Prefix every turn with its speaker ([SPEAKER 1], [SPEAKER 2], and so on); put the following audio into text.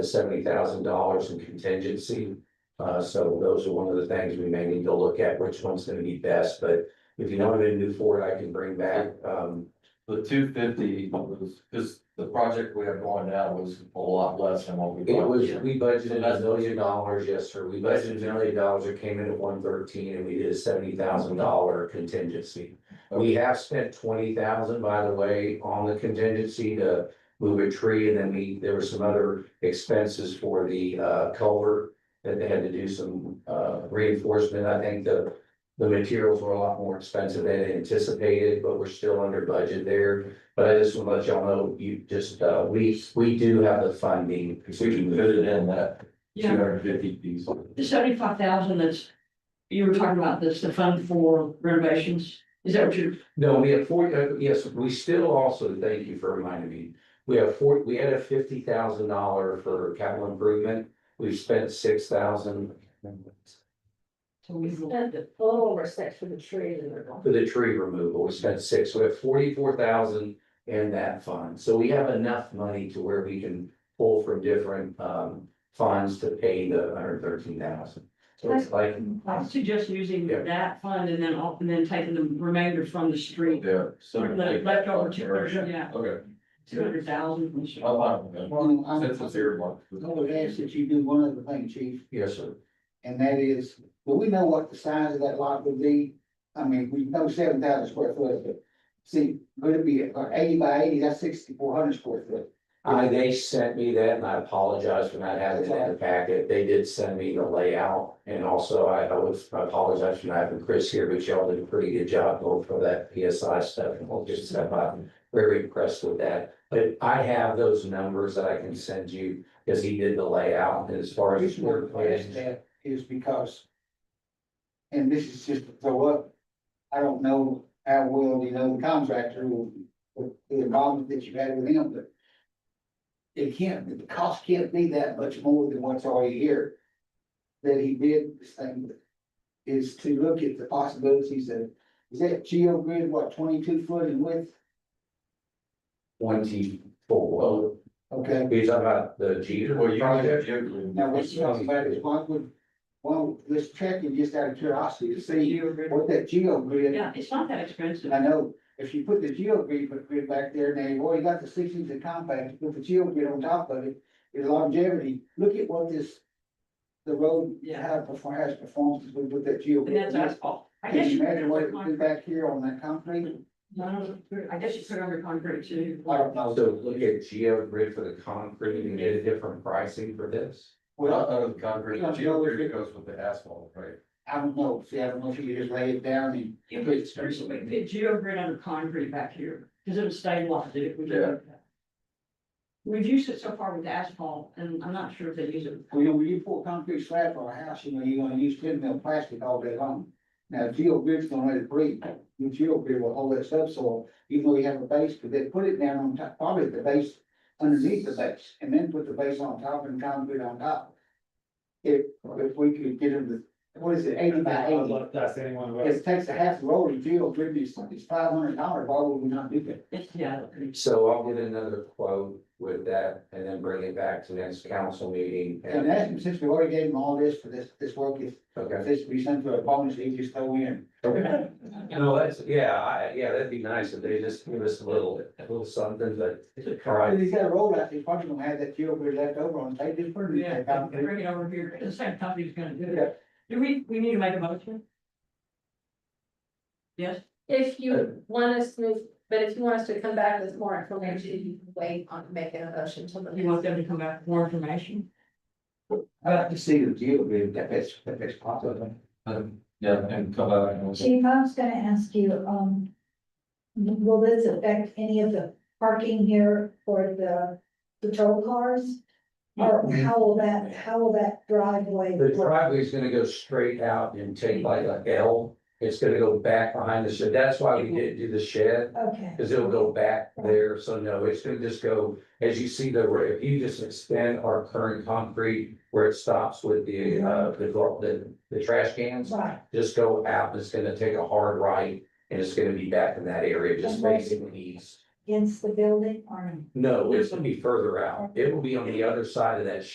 [SPEAKER 1] seventy thousand dollars in contingency. Uh, so those are one of the things we may need to look at, which one's gonna be best, but if you know what a new Ford I can bring back, um,
[SPEAKER 2] The two fifty was, because the project we have going now was a lot less than what we.
[SPEAKER 1] it was,
[SPEAKER 2] budgeted.
[SPEAKER 1] we budgeted a million dollars, yes, sir, we budgeted a million dollars, it came in at one thirteen, and we did a seventy thousand dollar contingency. We have spent twenty thousand, by the way, on the contingency to move a tree, and then we, there were some other expenses for the, uh, culvert. That they had to do some, uh, reinforcement, I think the, the materials were a lot more expensive than anticipated, but we're still under budget there. But I just want to let y'all know, you just, uh, we, we do have the funding.
[SPEAKER 2] If we can fit it in that two
[SPEAKER 3] Yeah,
[SPEAKER 2] hundred fifty piece.
[SPEAKER 3] the seventy-five thousand that's, you were talking about this, the fund for renovations, is that what you're,
[SPEAKER 1] No, we have forty, uh, yes, we still also, thank you for reminding me, we have four, we had a fifty thousand dollar for capital improvement. We've spent six thousand
[SPEAKER 3] so we,
[SPEAKER 4] And the total over six for the tree and the.
[SPEAKER 1] for the tree removal, we spent six, we have forty-four thousand in that fund. So we have enough money to where we can pull from different, um, funds to pay the hundred thirteen thousand. So it's like,
[SPEAKER 3] I suggest using
[SPEAKER 1] Yeah.
[SPEAKER 3] that fund and then, off- and then taking the remainder from the street.
[SPEAKER 2] Yeah. so-
[SPEAKER 3] Left left over two hundred, yeah,
[SPEAKER 2] Okay.
[SPEAKER 3] two hundred thousand from the street.
[SPEAKER 2] I'm fine with
[SPEAKER 5] Well, um, oh,
[SPEAKER 2] that.
[SPEAKER 5] I'm-
[SPEAKER 2] Since it's here, one.
[SPEAKER 5] I would ask that you do one other thing, chief,
[SPEAKER 1] yes, sir,
[SPEAKER 5] and that is, well, we know what the size of that lot would be. I mean, we know seven thousand square foot, but see, would it be uh, eighty by eighty, that's sixty-four hundred square foot.
[SPEAKER 1] I, they sent me that and I apologize for not having it in the packet. They did send me the layout. And also I, I would I apologize for not having Chris here, but y'all did a pretty good job going for that PSI stuff and we'll just step up. Very impressed with that. But I have those numbers that I can send you because he did the layout and as far as.
[SPEAKER 5] Reason we're past that is because, and this is just to throw up, I don't know how well, you know, the contractor will, with the involvement that you've had with him, but it can't, the cost can't be that much more than what's already here. That he did this thing is to look at the possibilities of, is that geo grid, what, twenty-two foot in width?
[SPEAKER 1] Twenty-four.
[SPEAKER 5] Okay,
[SPEAKER 1] Are you talking about the Jeter
[SPEAKER 2] Well, you
[SPEAKER 1] project?
[SPEAKER 2] can.
[SPEAKER 5] now what's, one would, well, let's check it just out of curiosity to see what that geo grid
[SPEAKER 3] Yeah, it's not that expensive.
[SPEAKER 5] I know, if you put the geo grid, grid back there, now you've already got the six inch of compact, you put the geo grid on top of it, your longevity, look at what this. The road,
[SPEAKER 3] Yeah.
[SPEAKER 5] how it perform, has performed since we put that geo.
[SPEAKER 3] And that's asphalt. I
[SPEAKER 5] Can
[SPEAKER 3] guess
[SPEAKER 5] you
[SPEAKER 3] you.
[SPEAKER 5] imagine what it would do
[SPEAKER 3] No,
[SPEAKER 5] back here on that concrete?
[SPEAKER 3] no, I guess you put under concrete too.
[SPEAKER 5] I don't know.
[SPEAKER 1] Also, look at Geo Grid for the concrete and get a different pricing for this.
[SPEAKER 2] Well,
[SPEAKER 5] Well,
[SPEAKER 2] out of the concrete,
[SPEAKER 5] Yeah,
[SPEAKER 2] geo grid goes with the asphalt, right?
[SPEAKER 5] I don't know, see, I don't know if you could just lay it down and.
[SPEAKER 3] If it's, we put geo grid under concrete back here, because it would stabilize it if we did that. We've used it so far with asphalt, and I'm not sure if they use it.
[SPEAKER 5] Well, you know, when you pour concrete slab for a house, you know, you're gonna use ten mil plastic all day long. Now, geo grid's gonna let it breathe, your geo grid will hold that subsoil, even though you have a base, but they put it down on top, probably the base underneath the base, and then put the base on top and concrete on top. If, if we could get them to, what is it, eighty by eighty,
[SPEAKER 6] That's anyone.
[SPEAKER 5] it takes a half roll of geo grid, it's, it's five hundred dollars, why would we not do that?
[SPEAKER 3] It's, yeah.
[SPEAKER 1] So I'll get another quote with that and then bring it back to next council meeting.
[SPEAKER 5] And
[SPEAKER 1] And,
[SPEAKER 5] that's, since we already gave them all this for this, this work, if, if
[SPEAKER 1] okay.
[SPEAKER 5] this be sent to a bonus, they just throw in.
[SPEAKER 1] No, that's, yeah, I, yeah, that'd be nice if they just give us a little, a little something, but. all right.
[SPEAKER 5] If he's got a road out, he's probably gonna have that fuel grid left over on, they just burn it.
[SPEAKER 3] Yeah,
[SPEAKER 5] back out.
[SPEAKER 3] bring it over here, the same company's gonna do
[SPEAKER 5] Yeah.
[SPEAKER 3] it. Do we, we need to make a motion? Yes,
[SPEAKER 4] If
[SPEAKER 3] Uh,
[SPEAKER 4] you want us to move, but if you want us to come back with more information, you can wait on making a motion till the
[SPEAKER 3] you want
[SPEAKER 4] next.
[SPEAKER 3] them to come back with more information?
[SPEAKER 5] I'd like to see the fuel grid, that that's, that that's possible.
[SPEAKER 2] Um, Yeah, and come out and.
[SPEAKER 7] Chief, I was gonna ask you, um, will this affect any of the parking here for the patrol cars? Or how will that, how will that driveway?
[SPEAKER 1] The
[SPEAKER 7] work?
[SPEAKER 1] driveway's gonna go straight out and take like a L. It's gonna go back behind the shed. That's why we didn't do the shed.
[SPEAKER 7] Okay,
[SPEAKER 1] Cause it'll go back there, so no, it's gonna just go, as you see the, if you just extend our current concrete where it stops with the, uh, the, the, the trash cans.
[SPEAKER 7] right,
[SPEAKER 1] Just go out, it's gonna take a hard right, and it's gonna be back in that area, just
[SPEAKER 7] Okay.
[SPEAKER 1] facing east.
[SPEAKER 7] against the building or?
[SPEAKER 1] No, it's gonna be further out, it will be on the other side of that